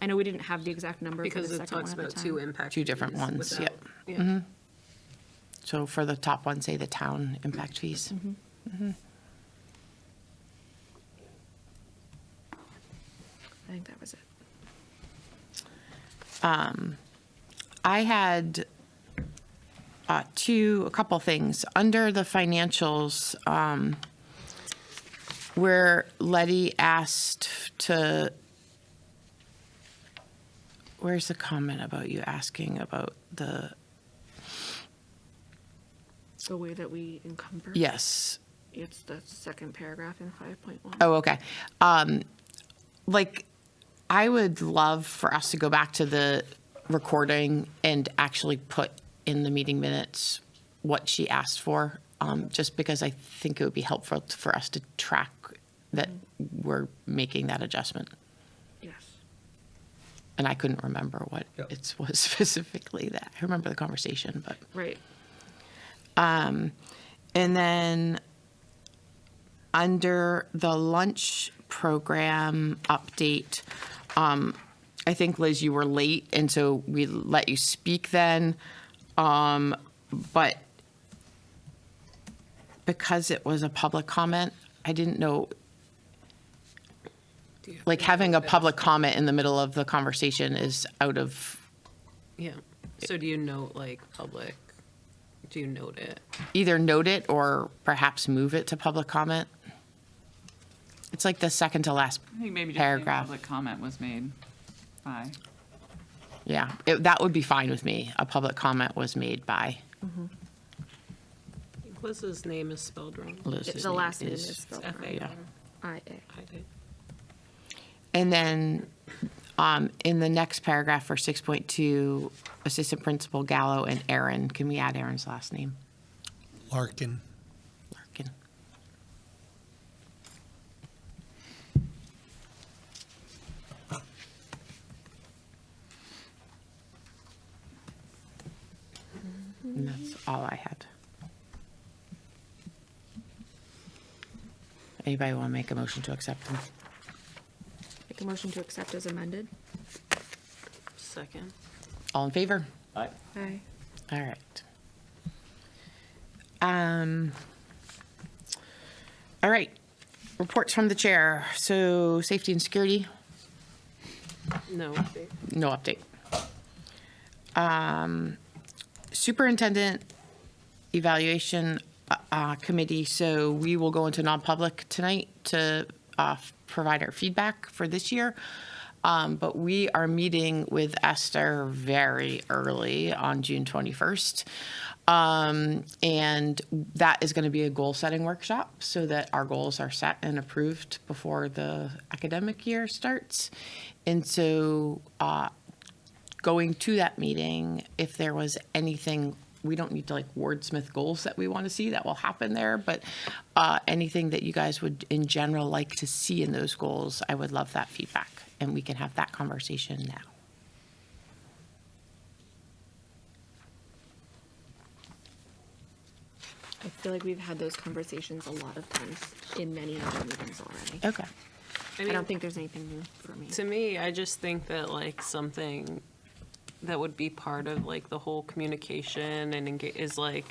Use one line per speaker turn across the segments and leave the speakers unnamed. I know we didn't have the exact number for
Because
the
it
second
talks
one at
about
the
two
time.
impact.
Two different
fees
ones, Mm-hmm.
without-
yep.
yeah.
So for the top one, say the town impact fees.
I think that was it.
I had uh, two, a couple things. Under the financials, um, where Letty asked to, where's the comment about you asking about the,
The way that we encumber.
yes,
It's the second paragraph in five point one.
Oh, okay. Um, like, I would love for us to go back to the recording and actually put in the meeting minutes what she asked for, um, just because I think it would be helpful t- for us to track that we're making that adjustment.
Yes.
And I couldn't remember what
Yep.
it was specifically that. I remember the conversation, but.
Right.
And then under the lunch program update, um, I think Liz, you were late, and so we let you speak then. Um, but because it was a public comment, I didn't know. Like having a public comment in the middle of the conversation is out of
Yeah. So do you note like public, do you note it?
either note it or perhaps move it to public comment. It's like the second to last,
I think maybe just saying
Paragraph.
public comment was made by.
yeah, it- that would be fine with me. A public comment was made by
Liz's name is spelled wrong.
Liz's
The
name
last name is spelled
F A
yeah.
R
I
I D.
And then um, in the next paragraph for 6.2, Assistant Principal Gallo and Aaron, can we add Aaron's last name?
Larkin.
Larkin. And that's all I had. Anybody want to make a motion to accept them?
Make a motion to accept as amended.
Second.
All in favor?
Aye.
All right. Um, all right, reports from the chair. So safety and security,
No.
no update. Um, superintendent evaluation uh, uh, committee, so we will go into non-public tonight to uh, provide our feedback for this year. Um, But we are meeting with Esther very early on June 21st. Um, And that is going to be a goal-setting workshop so that our goals are set and approved before the academic year starts. And so uh, going to that meeting, if there was anything, we don't need to like wordsmith goals that we want to see that will happen there, but uh, anything that you guys would in general like to see in those goals, I would love that feedback. And we can have that conversation now.
I feel like we've had those conversations a lot of times in many other meetings already.
Oh.
Okay.
I don't think there's anything new for me.
To me, I just think that like something that would be part of like the whole communication and engage is like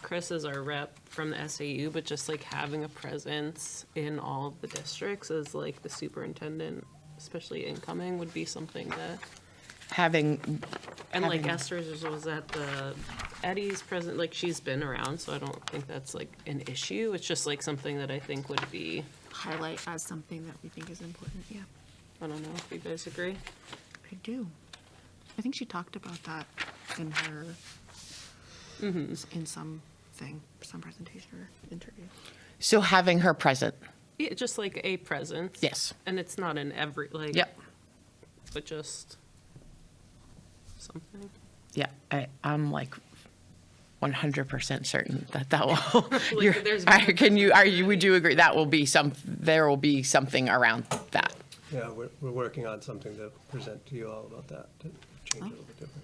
Chris is our rep from the SAU, but just like having a presence in all of the districts as like the superintendent, especially incoming, would be something that.
Having,
And like
Having-
Esther's is- was at the Eddie's present, like she's been around, so I don't think that's like an issue. It's just like something that I think would be,
Highlight as something that we think is important, yeah.
I don't know if you guys agree.
I do. I think she talked about that in her, in some thing, some presentation or interview.
so having her present,
Yeah, just like a presence.
yes.
And it's not in every, like.
Yep,
But just something.
yeah, I, I'm like 100% certain that that will,
Like,
you're-
there's-
I- can you, are you, would you agree that will be some, there will be something around that?
Yeah, we're, we're working on something to present to you all about that, to change it a little bit different.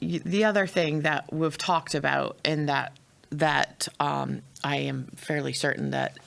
y- the other thing that we've talked about and that that um, I am fairly certain that